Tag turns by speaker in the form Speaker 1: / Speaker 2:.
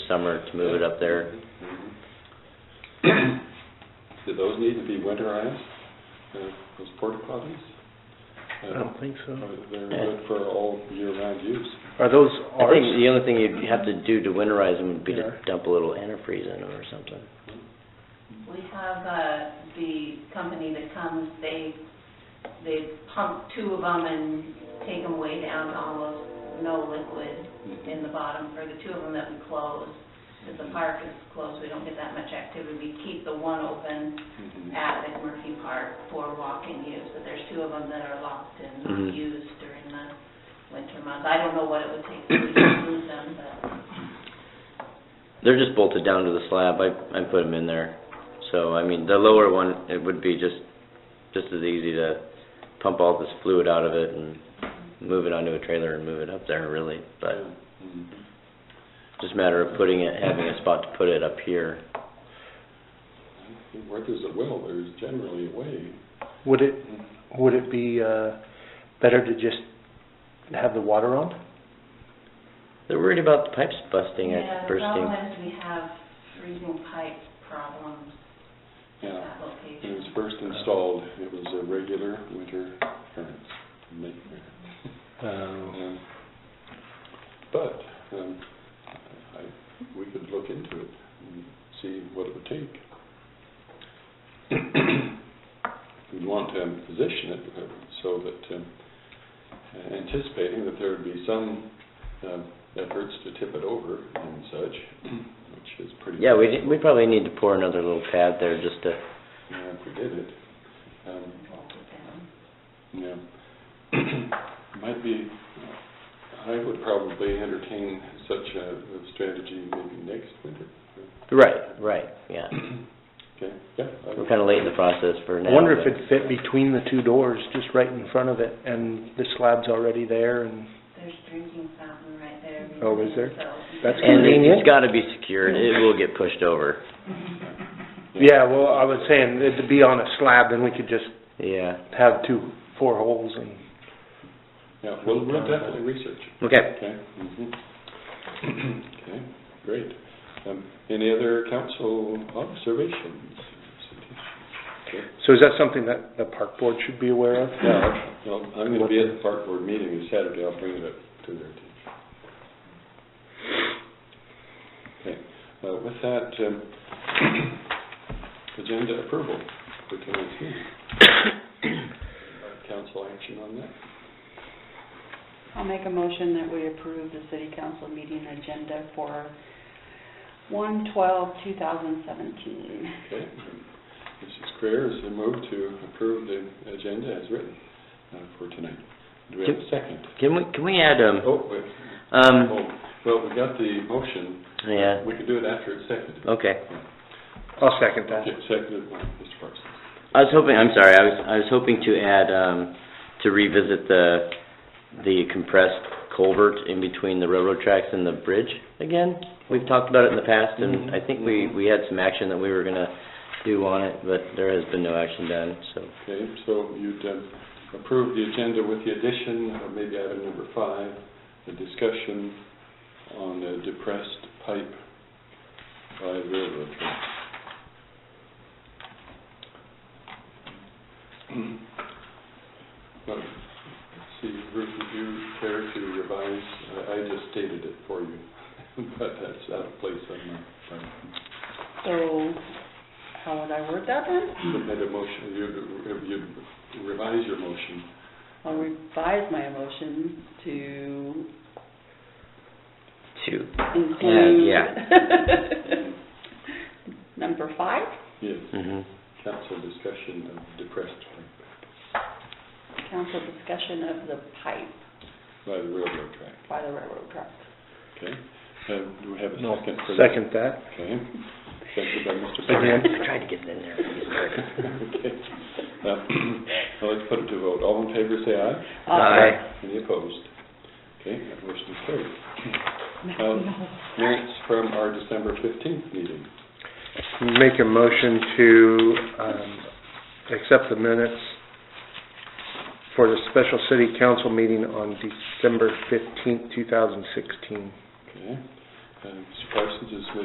Speaker 1: summer to move it up there.
Speaker 2: Mhm. Do those need to be winterized, uh, those porta potties? Uh,
Speaker 3: I don't think so.
Speaker 2: They're good for all year-round use.
Speaker 3: Are those
Speaker 1: I
Speaker 3: ours?
Speaker 1: think the only thing you'd have to do to winterize them would be to
Speaker 3: Yeah.
Speaker 1: dump a little antifreeze in them or something.
Speaker 4: We have, uh, the company that comes, they, they pump two of them and take them way down to almost no liquid in the bottom for the two of them that we close. Because the park is closed, we don't get that much activity. We keep the one open
Speaker 2: Mhm.
Speaker 4: at McMurphy Park for walk-in use, but there's two of them that are locked and
Speaker 1: Mhm.
Speaker 4: not used during the winter months. I don't know what it would take to lose them, but
Speaker 1: They're just bolted down to the slab, I, I put them in there. So, I mean, the lower one, it would be just, just as easy to pump all this fluid out of it and move it onto a trailer and move it up there, really. But
Speaker 2: Mhm.
Speaker 1: just a matter of putting it, having a spot to put it up here.
Speaker 2: Where Mm-hmm. there's a will, there's generally a way.
Speaker 3: Would it, would it be, uh, better to just have the water on?
Speaker 1: They're worried about the pipes busting and
Speaker 4: yeah,
Speaker 1: bursting.
Speaker 4: sometimes we have freezing pipe problems at
Speaker 2: Yeah,
Speaker 4: that location.
Speaker 2: when it was first installed, it was a regular winter occurrence. Make-
Speaker 3: Um,
Speaker 2: um, But, um, I, we could look into it and see what it would take. We'd want to um, position it uh, so that, um, uh, anticipating that there would be some, um, efforts to tip it over and such, which is pretty.
Speaker 1: Yeah, we, we probably need to pour another little pad there just to,
Speaker 2: Yeah, if we did it. Um, Yeah. Might be, I would probably entertain such a a strategy maybe next winter.
Speaker 1: right, right, yeah.
Speaker 2: Okay, yeah. I-
Speaker 1: We're kinda late in the process for now.
Speaker 3: I wonder if
Speaker 1: but-
Speaker 3: it'd fit between the two doors, just right in front of it, and the slab's already there and...
Speaker 4: There's drinking fountain right there.
Speaker 3: Oh, is there?
Speaker 4: So-
Speaker 3: That's
Speaker 1: And it-
Speaker 3: convenient.
Speaker 1: it's gotta be secured, it will get pushed over,
Speaker 3: Yeah, well, I was saying, it'd be on a slab, then we could just
Speaker 1: yeah.
Speaker 3: have two, four holes and...
Speaker 2: Yeah, we'll, we'll definitely research.
Speaker 1: Okay.
Speaker 2: Okay. mhm. Okay, great. Um, Any other council oh, observations? Okay.
Speaker 3: So is that something that the park board should be aware of?
Speaker 2: Yeah, well, I'm gonna be at the park board meeting this Saturday, I'll bring it up to their attention. Okay, uh, with that, um, agenda approval for tonight's meeting. Uh, Council action on that?
Speaker 5: I'll make a motion that we approve the city council meeting agenda for 1/12/2017.
Speaker 2: Okay. Mrs. Creer has moved to approve the agenda as written uh, for tonight. Do we have a second?
Speaker 1: Can we, can we add, um,
Speaker 2: Oh, wait,
Speaker 1: um,
Speaker 2: oh, well, we got the motion.
Speaker 1: yeah,
Speaker 2: We could do it after it's seconded.
Speaker 1: okay.
Speaker 3: I'll second that.
Speaker 2: Okay, seconded by Mr. Parsons.
Speaker 1: I was hoping, I'm sorry, I was, I was hoping to add, um, to revisit the, the compressed culvert in between the railroad tracks and the bridge again. We've talked about it in the past, and I think we, we had some action that we were gonna do on it, but there has been no action done, so.
Speaker 2: Okay, so you'd um, approve the agenda with the addition, of maybe item number five, the discussion on the depressed pipe by railroad track. Well, let's See, Ruth, would you care to revise? I- I just stated it for you, but that's out of place on my part.
Speaker 5: So how would I word that then?
Speaker 2: Submit a motion, you'd- you'd revise your motion
Speaker 5: I'll revise my motion to
Speaker 1: Two.
Speaker 5: include...
Speaker 1: yeah.
Speaker 5: Number five?
Speaker 2: Yes,
Speaker 1: Mm-hmm.
Speaker 2: council discussion of depressed
Speaker 5: Council discussion of the pipe
Speaker 2: by the railroad track.
Speaker 5: by the railroad track.
Speaker 2: Okay, Um, do we have a
Speaker 3: No,
Speaker 2: second for that?
Speaker 3: second that.
Speaker 2: Okay, second by Mr.
Speaker 3: Sorry.
Speaker 2: Perry.
Speaker 1: I tried to get it in there.
Speaker 2: Okay. Uh, Now let's put it to vote. All in favor, say aye. Any opposed? Okay, that motion is carried.
Speaker 5: Uh,
Speaker 2: Um, Minutes from our December 15th meeting.
Speaker 3: Make a motion to, um, accept the minutes for the special city council meeting on December fifteenth, two thousand sixteen.
Speaker 2: Okay, Uh, Mr. Parsons is with